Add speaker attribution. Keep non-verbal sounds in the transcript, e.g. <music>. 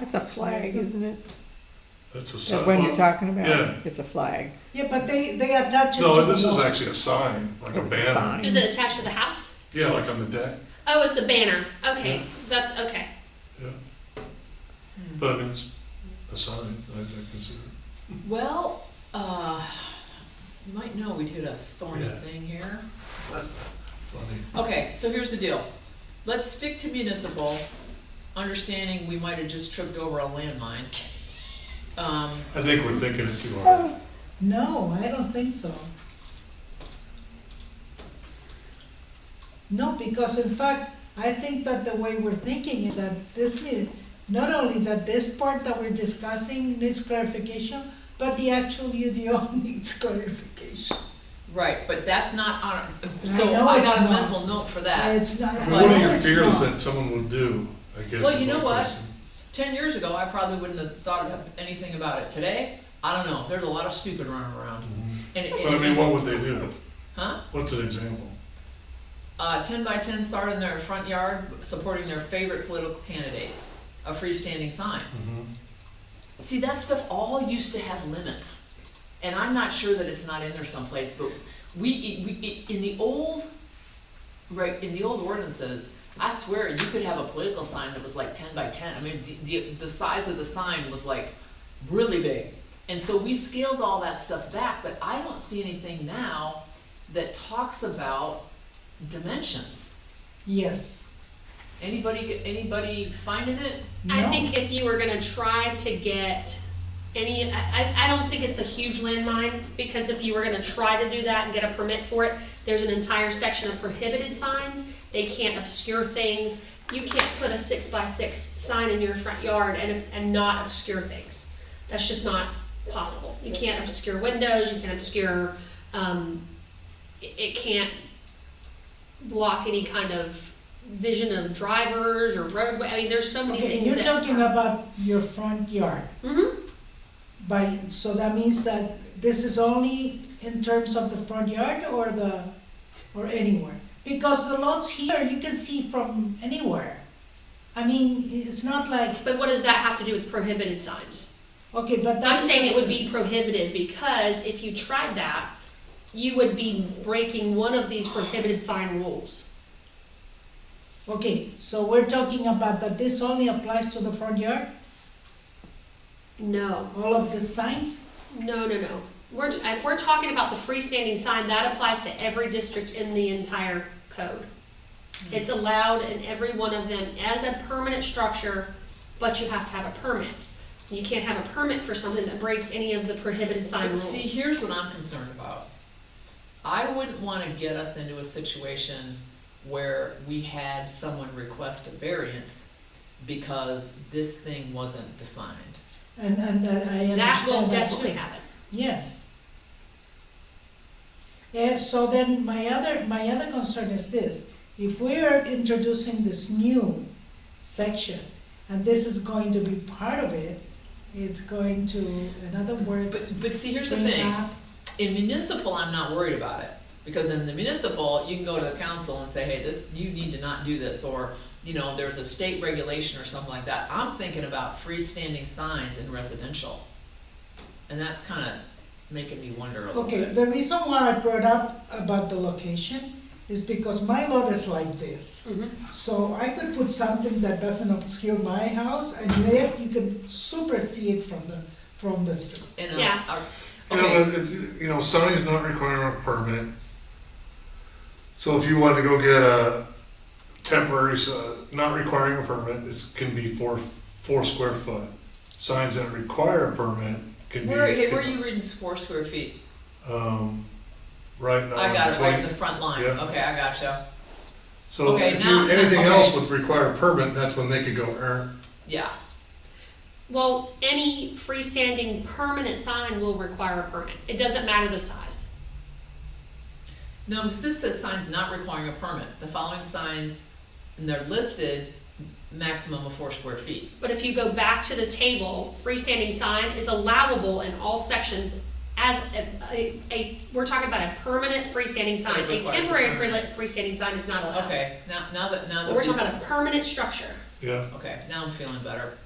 Speaker 1: That's a flag, isn't it?
Speaker 2: That's a
Speaker 1: That
Speaker 2: sign.
Speaker 1: one you're talking about?
Speaker 2: Yeah.
Speaker 1: It's a flag.
Speaker 3: Yeah, but they, they attach it to the
Speaker 2: No, this is
Speaker 3: wall.
Speaker 2: actually a sign, like a
Speaker 1: It's
Speaker 2: banner.
Speaker 1: sign.
Speaker 4: Is it attached to the house?
Speaker 2: Yeah, like on the deck,
Speaker 4: Oh, it's a banner. Okay,
Speaker 2: Yeah.
Speaker 4: that's okay.
Speaker 2: yeah.
Speaker 5: Hmm.
Speaker 2: But I mean, it's a sign, I think, consider it.
Speaker 5: Well, uh, you might know we did a thorny
Speaker 2: Yeah.
Speaker 5: thing here.
Speaker 2: funny.
Speaker 5: Okay, so here's the deal. Let's stick to municipal, understanding we might have just tripped over a landmine. Um,
Speaker 2: I think we're thinking it too hard.
Speaker 3: No, I don't think so. No, because in fact, I think that the way we're thinking is that this need, not only that this part that we're discussing needs clarification, but the actual <laughs> UDO needs clarification.
Speaker 5: right, but that's not on, so
Speaker 3: know
Speaker 5: I
Speaker 3: it's
Speaker 5: got a
Speaker 3: not.
Speaker 5: mental note for that.
Speaker 3: It's not.
Speaker 2: I
Speaker 3: I
Speaker 2: mean, What are
Speaker 3: know
Speaker 2: your
Speaker 3: it's
Speaker 2: fears
Speaker 3: not.
Speaker 2: that someone will do, I guess?
Speaker 5: Well,
Speaker 2: is
Speaker 5: you
Speaker 2: my
Speaker 5: know what?
Speaker 2: question.
Speaker 5: Ten years ago, I probably wouldn't have thought of anything about it. Today, I don't know, there's a lot of stupid running around. And it-
Speaker 2: But I mean,
Speaker 5: it,
Speaker 2: what would they do?
Speaker 5: huh?
Speaker 2: What's an example?
Speaker 5: Uh, ten by ten start in their front yard, supporting their favorite political candidate, a freestanding sign. See, that stuff all used to have limits, and I'm not sure that it's not in there someplace, but we, it- we, it- in the old, right, in the old ordinances, I swear, you could have a political sign that was like ten by ten, I mean, the, the, the size of the sign was like really big. And so we scaled all that stuff back, but I don't see anything now that talks about dimensions.
Speaker 3: Yes.
Speaker 5: Anybody, anybody finding it?
Speaker 4: I
Speaker 3: No.
Speaker 4: think if you were gonna try to get any, I, I, I don't think it's a huge landmine, because if you were gonna try to do that and get a permit for it, there's an entire section of prohibited signs, they can't obscure things. You can't put a six by six sign in your front yard and, and not obscure things. That's just not possible. You can't obscure windows, you can obscure, um, it, it can't block any kind of vision of drivers or roadway, I mean, there's so many
Speaker 3: Okay,
Speaker 4: things
Speaker 3: you're
Speaker 4: that.
Speaker 3: talking about your front yard,
Speaker 4: Mhm.
Speaker 3: by, so that means that this is only in terms of the front yard or the, or anywhere? Because the lots here, you can see from anywhere. I mean, it's not like,
Speaker 4: But what does that have to do with prohibited signs?
Speaker 3: okay, but that's.
Speaker 4: I'm saying it
Speaker 3: just-
Speaker 4: would be prohibited because if you tried that, you would be breaking one of these prohibited sign rules.
Speaker 3: Okay, so we're talking about that this only applies to the front yard,
Speaker 4: No,
Speaker 3: all of the signs?
Speaker 4: no, no, no. We're, if we're talking about the freestanding sign, that applies to every district in the entire code. It's allowed in every one of them as a permanent structure, but you have to have a permit. You can't have a permit for something that breaks any of the prohibited sign
Speaker 5: But
Speaker 4: rules.
Speaker 5: see, here's what I'm concerned about. I wouldn't wanna get us into a situation where we had someone request a variance because this thing wasn't defined.
Speaker 3: And, and that I understand
Speaker 4: That will
Speaker 3: too.
Speaker 4: definitely happen.
Speaker 3: Yes. And so then my other, my other concern is this, if we are introducing this new section, and this is going to be part of it, it's going to, in other
Speaker 5: But,
Speaker 3: words.
Speaker 5: but see, here's the
Speaker 3: bring
Speaker 5: thing,
Speaker 3: up-
Speaker 5: in municipal, I'm not worried about it, because in the municipal, you can go to the council and say, hey, this, you need to not do this, or, you know, there's a state regulation or something like that. I'm thinking about freestanding signs in residential, and that's kinda making me wonder a little
Speaker 3: Okay,
Speaker 5: bit.
Speaker 3: the reason why I brought up about the location is because my lot is like this.
Speaker 4: Mhm.
Speaker 5: Mm-hmm.
Speaker 3: So I could put something that doesn't obscure my house, and yet you could super see it from the, from the street.
Speaker 5: And, uh,
Speaker 4: Yeah.
Speaker 5: our-
Speaker 2: You know,
Speaker 5: okay,
Speaker 2: but it- you know, Sunny's not requiring a permit. So if you want to go get a temporary, s- uh, not requiring a permit, it's, can be four, four square foot. Signs that require a permit can be.
Speaker 5: where, hey, where are you reading four square feet?
Speaker 2: Um, right now.
Speaker 5: I got it right in the
Speaker 2: 20
Speaker 5: front line,
Speaker 2: Uh, Yeah.
Speaker 5: okay, I gotcha,
Speaker 2: So
Speaker 5: okay,
Speaker 2: if
Speaker 5: now-
Speaker 2: you, anything
Speaker 5: okay.
Speaker 2: else would require a permit, that's when they could go, er,
Speaker 5: yeah,
Speaker 4: Well, any freestanding permanent sign will require a permit. It doesn't matter the size.
Speaker 5: No, because this says signs not requiring a permit, the following signs, and they're listed, maximum of four square feet.
Speaker 4: But if you go back to the table, freestanding sign is allowable in all sections as a, a, a- we're talking about a permanent freestanding sign.
Speaker 5: It
Speaker 4: A
Speaker 5: requires a
Speaker 4: temporary free-
Speaker 5: permit.
Speaker 4: freestanding sign is not allowed.
Speaker 5: Okay, now, now that, now that.
Speaker 4: But we're
Speaker 5: we-
Speaker 4: talking about a permanent structure.
Speaker 2: yeah.
Speaker 5: Okay, now I'm feeling better.